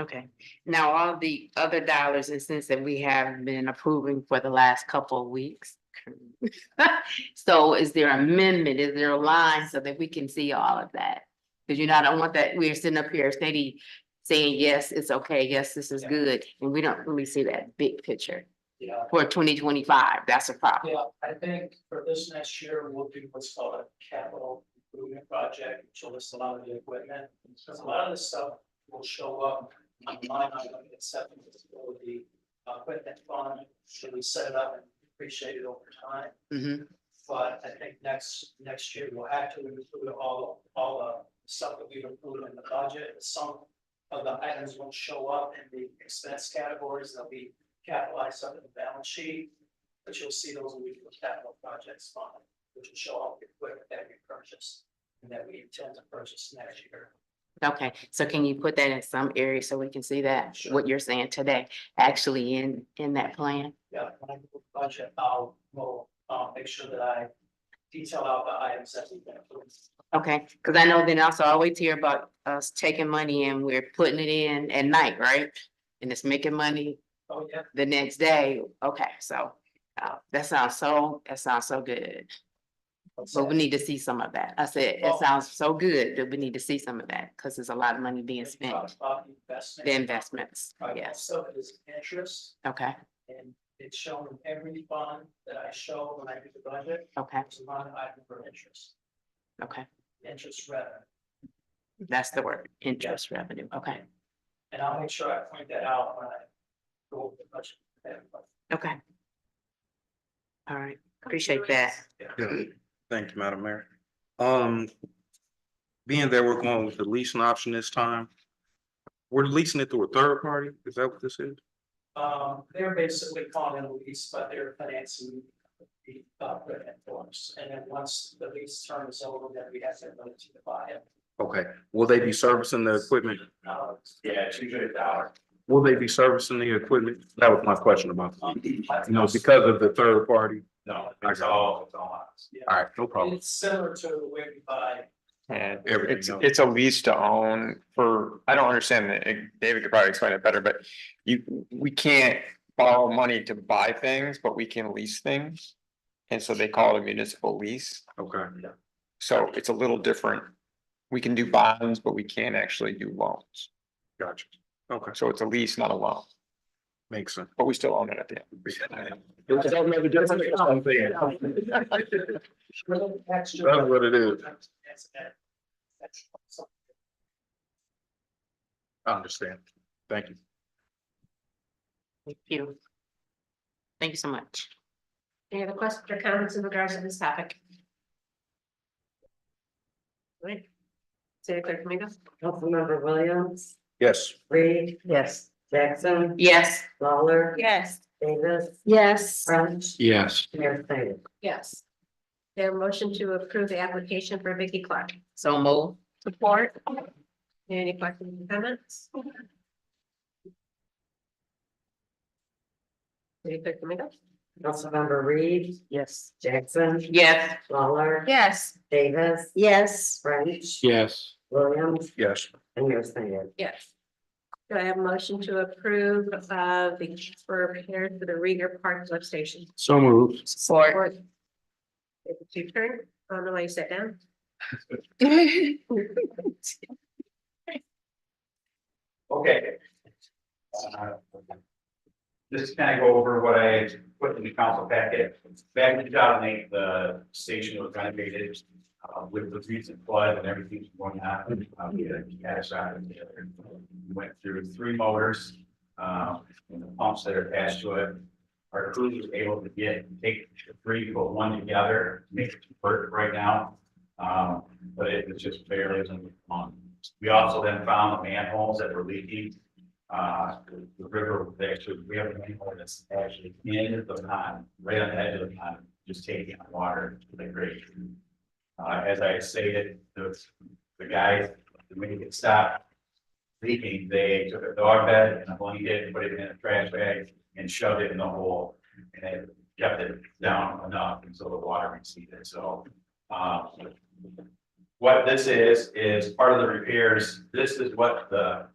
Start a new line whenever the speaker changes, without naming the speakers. Okay, now all the other dollars and cents that we have been approving for the last couple of weeks. So is there amendment, is there a line so that we can see all of that? Cause you know, I don't want that, we're sitting up here steady saying, yes, it's okay, yes, this is
Yeah.
good, and we don't really see that big picture.
Yeah,
For twenty twenty-five, that's a problem,
yeah, I think for this next year, we'll do what's called a capital improvement project, which will list a lot of the equipment. Because a lot of this stuff will show up on line item, except for the equipment fund, should we set it up and depreciate it over time?
Mhm.
But I think next, next year we'll have to include all, all the stuff that we've included in the budget. Some of the items won't show up in the expense categories. They'll be capitalized under the balance sheet. But you'll see those when we do the capital projects fund, which will show up the equipment that we purchased and that we intend to purchase next year.
okay, so can you put that in some area so we can see that,
Sure.
what you're saying today, actually in, in that plan?
Yeah, when I do the budget, I'll, will, uh, make sure that I detail out the items that we've been approved.
Okay, cause I know then also I always hear about us taking money and we're putting it in at night, right? And it's making money
Oh, yeah,
the next day. Okay, so uh, that sounds so, that sounds so good. But we need to see some of that. I said, it
Well-
sounds so good that we need to see some of that, cause there's a lot of money being
If you talk
spent,
About the investment.
the investments.
Right,
Yes,
So it is interest
okay,
and it's shown in every bond that I show when I do the budget,
okay,
it's a line item for interest,
okay.
interest revenue.
That's the word, interest revenue. Okay,
And I'll make sure I point that out when I go over the budget. with everybody.
okay. All right, appreciate that.
Yeah, thank you, Madam Mayor. Um, being that we're going with the leasing option this time, we're leasing it through a third party? Is that what this is?
Um, they're basically calling it a lease, but they're financing uh, the equipment for us. And then once the lease term is over, then we have to ability to buy it.
Okay, will they be servicing the equipment?
Uh, Yeah, two hundred dollars.
Will they be servicing the equipment? That was my question about, you know, because of the third party.
No,
it's all-
it's all ours. Yeah.
All right, no problem.
It's similar to the way we buy
Yeah,
Everything
it's,
else.
it's a lease to own for, I don't understand, it. It- David could probably explain it better, but you, we can't borrow money to buy things, but we can lease things. And so they call it a municipal lease,
Okay,
so it's a little different. We can do bonds, but we can't actually do loans,
gotcha. Okay,
so it's a lease, not a loan,
makes sense.
but we still own it at the end.
That's what it is. I understand. Thank you.
Thank you. Thank you so much.
Any other questions or comments in regards to this topic? Right. City Clerk Domingo?
Councilmember Williams,
Yes.
Reed. Yes. Jackson,
Yes.
Lawler,
Yes.
Davis,
Yes.
French,
Yes.
Mayor Snyder.
Yes. Their motion to approve the application for Vicky Clark.
So move.
Support. Any questions or comments? City Clerk Domingo?
Councilmember Reed,
Yes.
Jackson,
Yes.
Lawler,
Yes.
Davis,
Yes.
French,
Yes.
Williams,
Yes.
and Mayor Snyder.
Yes. Do I have a motion to approve of the repair for the Rieger Park substation?
So moved.
Support.
Or- If it's your turn, I don't know why you sat down.
Okay. Uh, Just kind of go over what I put in the council packet. Back in two thousand eight, the station was renovated uh, with the recent flood and everything going on. uh, We had a gas out in there. We Went through three motors uh, and the pumps that are attached to it. Our crew was able to get, take three, put one together, make it work right now. Um, But it was just barely on. We also then found the manholes that were leaking. Uh, the- the river, was actually, we have a manhole that's actually in the pond, right on the edge of the pond, just taking on water to the grade. Uh, as I stated, those, the guys, the minute it stopped leaking, they took a dog bed and a blanket, put it in a trash bag and shoved it in the hole. And it kept it down enough until the water receded, so, uh, um, what this is, is part of the repairs, this is what the